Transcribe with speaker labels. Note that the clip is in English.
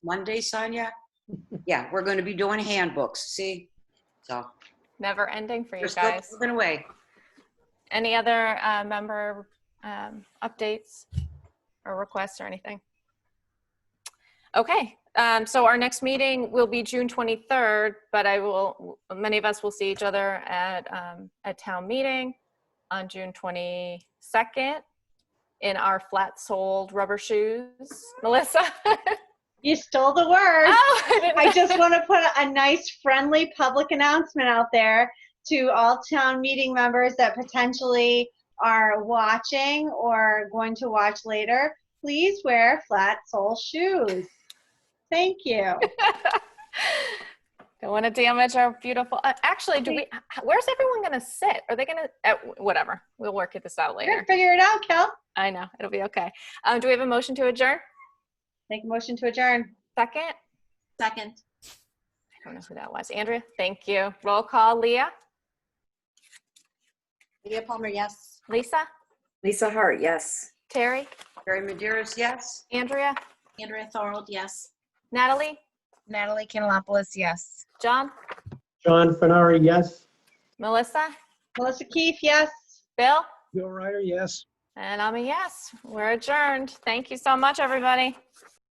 Speaker 1: Monday, Sonia? Yeah, we're going to be doing handbooks, see? So,
Speaker 2: Never ending for you
Speaker 1: we're still
Speaker 2: guys.
Speaker 1: moving away.
Speaker 2: Any other uh, member um, updates or requests or anything? Okay, um, so our next meeting will be June 23rd, but I will, many of us will see each other at, um, at town meeting on June 22nd in our flat-soled rubber shoes. Melissa?
Speaker 3: You stole the word.
Speaker 2: Oh, I didn't
Speaker 3: I
Speaker 2: know.
Speaker 3: just want to put a nice, friendly public announcement out there to all town meeting members that potentially are watching or going to watch later. Please wear flat sole shoes. Thank you.
Speaker 2: Don't want to damage our beautiful. Uh, actually, do we? h- Where's everyone going to sit? Are they going to? Uh, whatever. We'll work this out
Speaker 3: We're gonna
Speaker 2: later.
Speaker 3: figure it out, Kel.
Speaker 2: I know it'll be okay. Um, do we have a motion to adjourn?
Speaker 3: Make a motion to adjourn.
Speaker 2: Second. I
Speaker 4: Second.
Speaker 2: don't know who that was. Andrea. Thank you. Roll call. Leah.
Speaker 4: Leah Palmer, yes.
Speaker 2: Lisa.
Speaker 5: Lisa Hart, yes.
Speaker 2: Terry.
Speaker 1: Barry Maderas, yes?
Speaker 2: Andrea.
Speaker 4: Andrea Thorold, yes.
Speaker 2: Natalie.
Speaker 6: Natalie Canalopoulos, yes.
Speaker 2: John.
Speaker 7: John Fenari, yes.
Speaker 2: Melissa.
Speaker 3: Melissa Keefe, yes.
Speaker 2: Bill.
Speaker 7: Bill Ryder, yes.
Speaker 2: And I'm a yes. We're adjourned. Thank you so much, everybody.